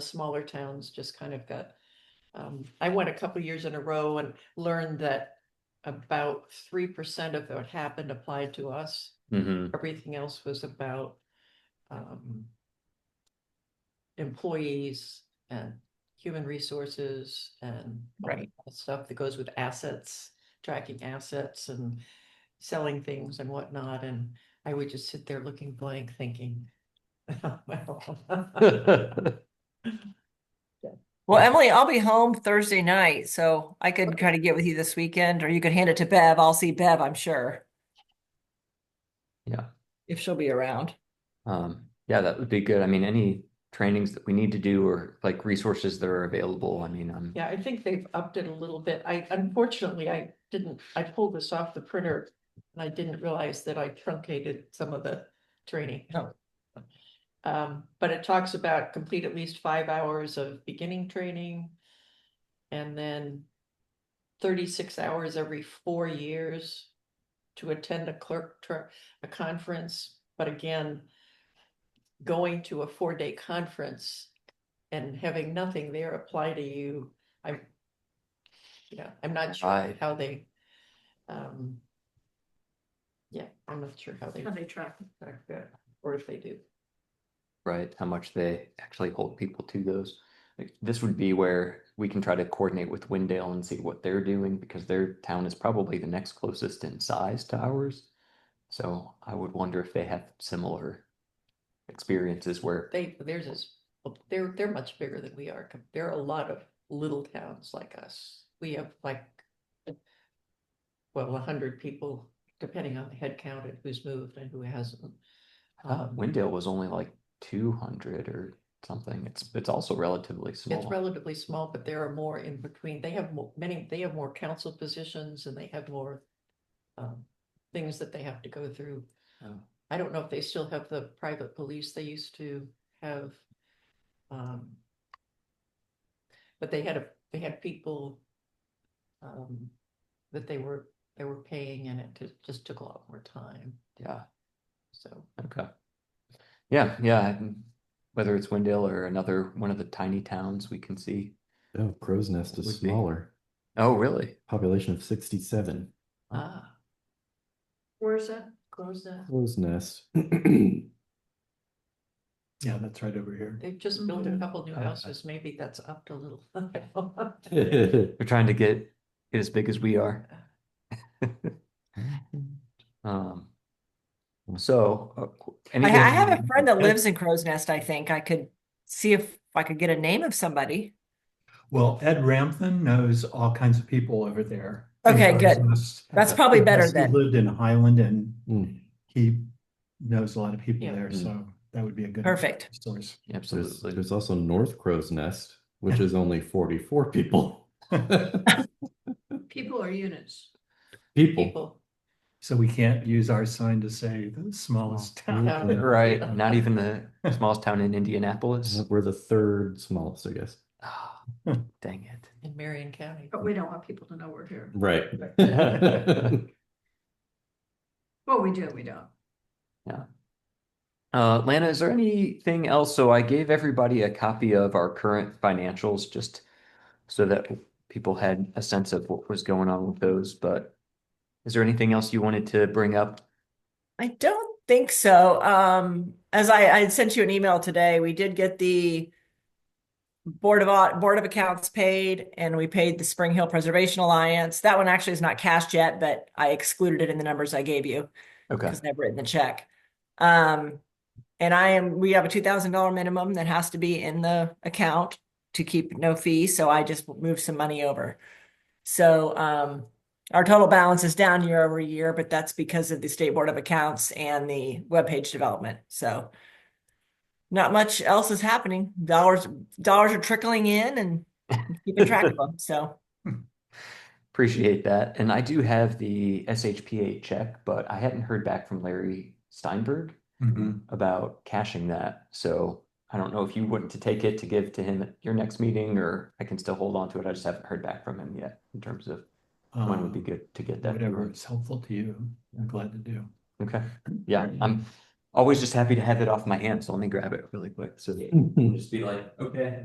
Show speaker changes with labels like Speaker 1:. Speaker 1: smaller towns just kind of got. Um, I went a couple years in a row and learned that about three percent of what happened applied to us.
Speaker 2: Mm-hmm.
Speaker 1: Everything else was about um. Employees and human resources and. all that
Speaker 3: Right.
Speaker 1: Stuff that goes with assets, tracking assets and selling things and whatnot, and I would just sit there looking blank thinking. Well.
Speaker 3: Well, Emily, I'll be home Thursday night, so I could kind of get with you this weekend, or you could hand it to Bev. I'll see Bev, I'm sure,
Speaker 2: Yeah.
Speaker 3: if she'll be around.
Speaker 2: Um, yeah, that would be good. I mean, any trainings that we need to do or like resources that are available. I mean, I'm,
Speaker 1: Yeah, I think they've upped it a little bit. I unfortunately, I didn't, I pulled this off the printer. And I didn't realize that I truncated some of the training.
Speaker 3: No.
Speaker 1: Um, but it talks about complete at least five hours of beginning training. And then thirty-six hours every four years to attend a clerk, tr- a conference, but again. Going to a four-day conference and having nothing there apply to you, I'm. Yeah, I'm not sure
Speaker 2: Right.
Speaker 1: how they, um. Yeah, I'm not sure how they.
Speaker 4: How they track.
Speaker 1: track that, Or if they do.
Speaker 2: right, how much they actually hold people to those. Like, This would be where we can try to coordinate with Windale and see what they're doing because their town is probably the next closest in size to ours. So I would wonder if they have similar experiences where,
Speaker 1: They, theirs is, they're, they're much bigger than we are. com- There are a lot of little towns like us. We have like. Well, a hundred people, depending on the head count and who's moved and who hasn't.
Speaker 2: I thought
Speaker 1: Um,
Speaker 2: uh, Windale was only like two hundred or something. It's, it's also relatively
Speaker 1: It's
Speaker 2: small.
Speaker 1: relatively small, but there are more in between. They have mo- many, they have more council positions and they have more. Um, things that they have to go through.
Speaker 2: Oh.
Speaker 1: I don't know if they still have the private police they used to have. Um. But they had a, they had people. Um, that they were, they were paying and it ju- just took a lot more time,
Speaker 2: Yeah.
Speaker 1: so.
Speaker 2: Okay. Yeah, yeah. and Whether it's Wendell or another one of the tiny towns we can see.
Speaker 5: Oh, Crow's Nest
Speaker 2: Would
Speaker 5: is
Speaker 2: be.
Speaker 5: smaller.
Speaker 2: Oh, really?
Speaker 5: Population of 67.
Speaker 2: Oh.
Speaker 1: Ah,
Speaker 4: Where's that?
Speaker 1: close that.
Speaker 5: Crow's Nest.
Speaker 6: Yeah, that's right over here.
Speaker 1: They've just built a
Speaker 4: Mhm.
Speaker 1: couple new
Speaker 6: I- I-
Speaker 1: houses. Maybe that's upped a little.
Speaker 2: They're trying to get get as big as we are. Um. So. uh, qu-
Speaker 3: I, I
Speaker 2: anything-
Speaker 3: have a friend that lives in Crow's Nest, I think. I could see if I could get a name of somebody.
Speaker 6: Well, Ed Rampton knows all kinds of people over there.
Speaker 3: Okay,
Speaker 6: Because
Speaker 3: good.
Speaker 6: he's-
Speaker 3: That's probably better
Speaker 6: because he
Speaker 3: then.
Speaker 6: Lived in Highland and
Speaker 5: Hmm.
Speaker 6: he knows a lot of people
Speaker 1: Yeah.
Speaker 6: there,
Speaker 2: Mm.
Speaker 6: so that would be a good.
Speaker 3: Perfect.
Speaker 6: Source.
Speaker 5: There's,
Speaker 2: Absolutely.
Speaker 5: there's also North Crow's Nest, which is only 44 people.
Speaker 4: People or units?
Speaker 5: People.
Speaker 1: People.
Speaker 6: So we can't use our sign to say the smallest town.
Speaker 1: No.
Speaker 5: Yeah.
Speaker 2: Right, not even the smallest town in Indianapolis.
Speaker 5: We're the third smallest, I guess.
Speaker 2: Ah, Dang it.
Speaker 1: in Marion County.
Speaker 4: But we don't want people to know we're here.
Speaker 5: Right.
Speaker 4: Well, we do, we don't.
Speaker 2: Uh, Lana, is there anything else? So I gave everybody a copy of our current financials just so that people had a sense of what was going on with those. But is there anything else you wanted to bring up?
Speaker 3: I don't think so. Um, as I, I had sent you an email today, we did get the Board of Au- Board of Accounts paid, and we paid the Spring Hill Preservation Alliance. That one actually is not cashed yet, but I excluded it in the numbers I gave you.
Speaker 2: Okay.
Speaker 3: because they've written the check. Um, and I am, we have a two thousand dollar minimum that has to be in the account to keep no fee, so I just moved some money over. So, um, our total balance is down year over year, but that's because of the State Board of Accounts and the webpage development, so. Not much else is happening. Dollars, dollars are trickling in and keeping track of them, so.
Speaker 2: Appreciate that. And I do have the SHPA check, but I hadn't heard back from Larry Steinberg
Speaker 6: Mhm.
Speaker 2: about cashing that. So I don't know if you want to take it to give to him at your next meeting or I can still hold on to it. I just haven't heard back from him yet in terms of when would be
Speaker 6: Um,
Speaker 2: good to get that.
Speaker 6: Whatever
Speaker 2: moving.
Speaker 6: is helpful to you, I'm glad to do.
Speaker 2: Okay, yeah, I'm always just happy to have it off my hand, so let me grab it really quick, so. Just be like, okay,